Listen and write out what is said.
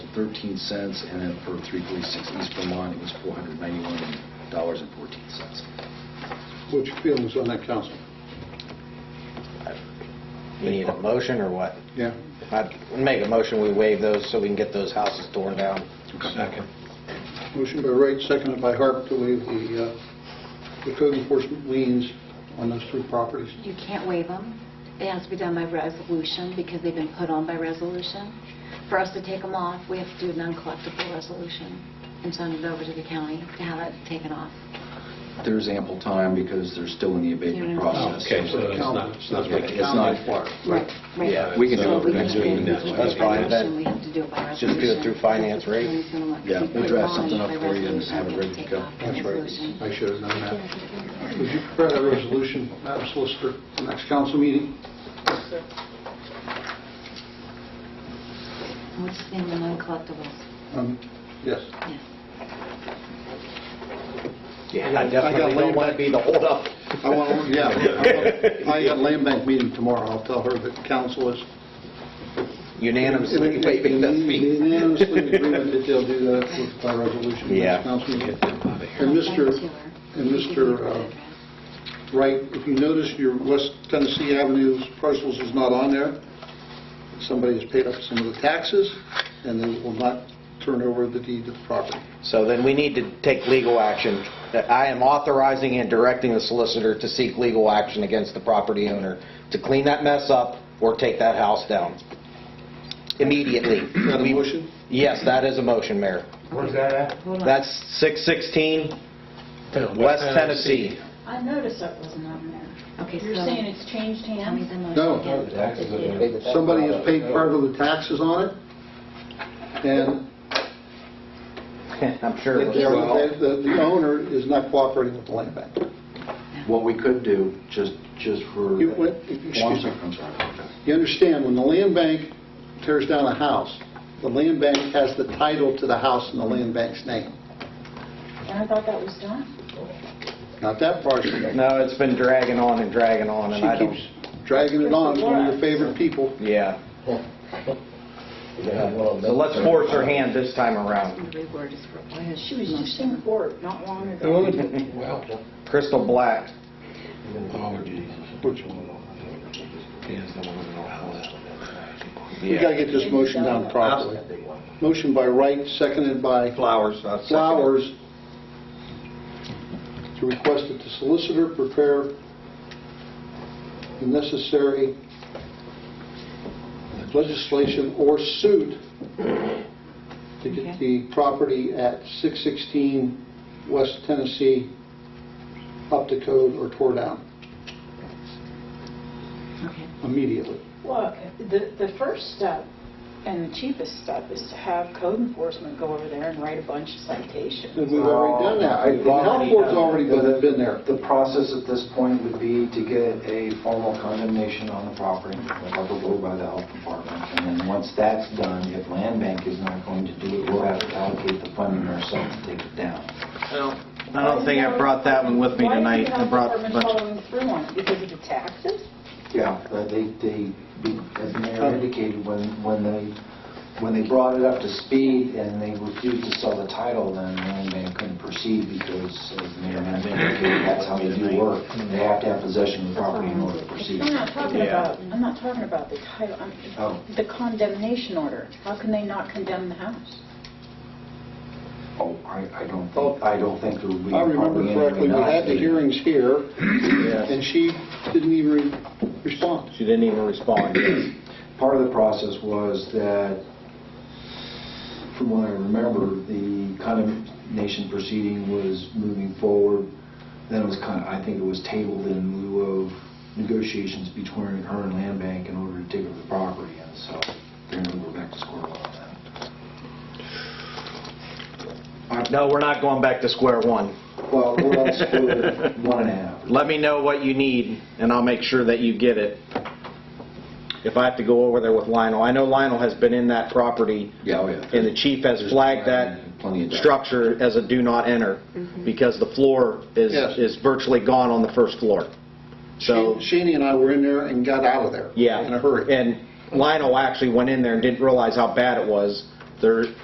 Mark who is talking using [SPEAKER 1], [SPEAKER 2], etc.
[SPEAKER 1] thirteen cents, and then for three forty-six East Vermont, it was four hundred ninety-one dollars and fourteen cents.
[SPEAKER 2] What's your feelings on that, council?
[SPEAKER 3] We need a motion or what?
[SPEAKER 2] Yeah.
[SPEAKER 3] I'd make a motion, we waive those so we can get those houses torn down.
[SPEAKER 1] Second.
[SPEAKER 2] Motion by Wright, seconded by Harp to waive the uh, the code enforcement liens on those three properties.
[SPEAKER 4] You can't waive them. It has to be done by resolution because they've been put on by resolution. For us to take them off, we have to do a non-collectible resolution and send it over to the county to have it taken off.
[SPEAKER 1] There's ample time because they're still in the abatement
[SPEAKER 4] Yeah.
[SPEAKER 1] process.
[SPEAKER 5] Okay, so it's not, it's not
[SPEAKER 1] It's not required.
[SPEAKER 4] Right.
[SPEAKER 3] Yeah,
[SPEAKER 1] we can
[SPEAKER 4] So
[SPEAKER 1] do it
[SPEAKER 4] we
[SPEAKER 1] next
[SPEAKER 4] can't
[SPEAKER 1] week.
[SPEAKER 4] do it
[SPEAKER 3] That's
[SPEAKER 4] by
[SPEAKER 3] fine.
[SPEAKER 4] resolution. We have to do it by
[SPEAKER 3] Just do it
[SPEAKER 4] resolution.
[SPEAKER 3] through finance, right?
[SPEAKER 1] Yeah, we'll draft something up for you and have it ready to go.
[SPEAKER 2] That's right. I should have known that. Would you prepare that resolution, Madam Solicitor, for next council meeting?
[SPEAKER 4] What's the name of non-collectibles?
[SPEAKER 2] Um, Yes.
[SPEAKER 4] Yeah.
[SPEAKER 3] Yeah, and I definitely don't want to be the holdup.
[SPEAKER 2] I want, to yeah. I want- I got a land bank meeting tomorrow. I'll tell her that council is
[SPEAKER 3] Unanimously waiving those fees.
[SPEAKER 2] Unanimously in agreement that they'll do that with- by resolution. next
[SPEAKER 3] Yeah.
[SPEAKER 2] council meeting.
[SPEAKER 4] I'll
[SPEAKER 2] And
[SPEAKER 4] send it to
[SPEAKER 2] Mr.
[SPEAKER 4] her.
[SPEAKER 2] and
[SPEAKER 4] You can give me
[SPEAKER 2] Mr.,
[SPEAKER 4] the
[SPEAKER 2] uh,
[SPEAKER 4] address.
[SPEAKER 2] Wright, if you notice, your West Tennessee Avenue's parcels is not on there. Somebody has paid up some of the taxes, and they will not turn over the deed of the property.
[SPEAKER 3] So then we need to take legal action. That I am authorizing and directing the solicitor to seek legal action against the property owner to clean that mess up or take that house down immediately.
[SPEAKER 2] Got a motion?
[SPEAKER 3] Yes, that is a motion, Mayor.
[SPEAKER 6] Where's that at?
[SPEAKER 3] That's 616 West Tennessee.
[SPEAKER 7] I noticed that wasn't on there.
[SPEAKER 4] Okay,
[SPEAKER 7] You're
[SPEAKER 4] so-
[SPEAKER 7] saying it's changed
[SPEAKER 4] Tell me
[SPEAKER 7] hands?
[SPEAKER 4] the motion
[SPEAKER 2] No.
[SPEAKER 4] again.
[SPEAKER 2] Somebody has paid part of the taxes on it, and
[SPEAKER 3] I'm sure. it was-
[SPEAKER 2] they're- the the owner is not cooperating with the land bank.
[SPEAKER 1] What we could do, just, just for...
[SPEAKER 2] You- what-
[SPEAKER 1] Oh, I'm
[SPEAKER 2] excuse me.
[SPEAKER 1] sorry, I'm sorry.
[SPEAKER 2] You understand, when the land bank tears down a house, the land bank has the title to the house in the land bank's name,
[SPEAKER 7] And I thought that was done.
[SPEAKER 2] not that parcel.
[SPEAKER 3] No, it's been dragging on and dragging on, and I
[SPEAKER 2] She
[SPEAKER 3] don't,
[SPEAKER 2] keeps dragging it on, one of your favorite people.
[SPEAKER 3] yeah. So let's force her hand this time around.
[SPEAKER 4] The reword is for, why has
[SPEAKER 7] She was just
[SPEAKER 4] motion?
[SPEAKER 7] in court not long ago.
[SPEAKER 3] Crystal Black.
[SPEAKER 2] We gotta get this motion down properly. Motion by Wright, seconded by
[SPEAKER 3] Flowers. uh, second.
[SPEAKER 2] Flowers, to request that the solicitor prepare the necessary legislation or suit to get the property at 616 West Tennessee up to code or tore down
[SPEAKER 4] Okay.
[SPEAKER 2] immediately.
[SPEAKER 7] Well, the, the first step and the cheapest step is to have code enforcement go over there and write a bunch of citations.
[SPEAKER 2] And we've already done
[SPEAKER 3] Oh,
[SPEAKER 2] that. The health board's already been been there.
[SPEAKER 8] The process at this point would be to get a formal condemnation on the property, like approved by the health department. And then once that's done, if land bank is not going to do it, we'll have to allocate the funding ourselves to take it down.
[SPEAKER 3] I don't think I brought that one with me tonight. I brought a
[SPEAKER 7] Why is the health department
[SPEAKER 3] bunch.
[SPEAKER 7] following through on it? Because of the taxes?
[SPEAKER 8] Yeah, but Uh, they, they, as Mayor indicated, when, when they, when they brought it up to speed and they refused to sell the title, then land bank couldn't proceed because, as Mayor indicated, that's how they do work. They have to have possession of the property in order to proceed.
[SPEAKER 7] I'm not talking
[SPEAKER 3] Yeah.
[SPEAKER 7] about, I'm not talking about the title, I'm,
[SPEAKER 8] Oh.
[SPEAKER 7] the condemnation order. How can they not condemn the house?
[SPEAKER 8] Oh, I, I don't, think- I don't think there would be.
[SPEAKER 2] I remember
[SPEAKER 8] probably
[SPEAKER 2] correctly, we
[SPEAKER 8] anything
[SPEAKER 2] had the
[SPEAKER 8] else.
[SPEAKER 2] hearings here,
[SPEAKER 3] Yes.
[SPEAKER 2] and she didn't even respond.
[SPEAKER 3] She didn't even respond.
[SPEAKER 8] Part of the process was that, from what I remember, the condemnation proceeding was moving forward. Then it was kind of, I think it was tabled in lieu of negotiations between her and Land Bank in order to take over the property, and so they're going to go back to square one on that.
[SPEAKER 3] No, we're not going back to square one.
[SPEAKER 8] Well, we're on square one and a half.
[SPEAKER 3] Let me know what you need, and I'll make sure that you get it. If I have to go over there with Lionel, I know Lionel has been in that property,
[SPEAKER 1] Yeah, oh, yeah.
[SPEAKER 3] and the chief has flagged that
[SPEAKER 1] Plenty of-
[SPEAKER 3] structure as a do not enter, because the floor is,
[SPEAKER 2] Yes.
[SPEAKER 3] is virtually gone on the first floor. So,
[SPEAKER 2] Shani and I were in there and got out of there.
[SPEAKER 3] yeah.
[SPEAKER 2] In a hurry.
[SPEAKER 3] And Lionel actually went in there and didn't realize how bad it was. There,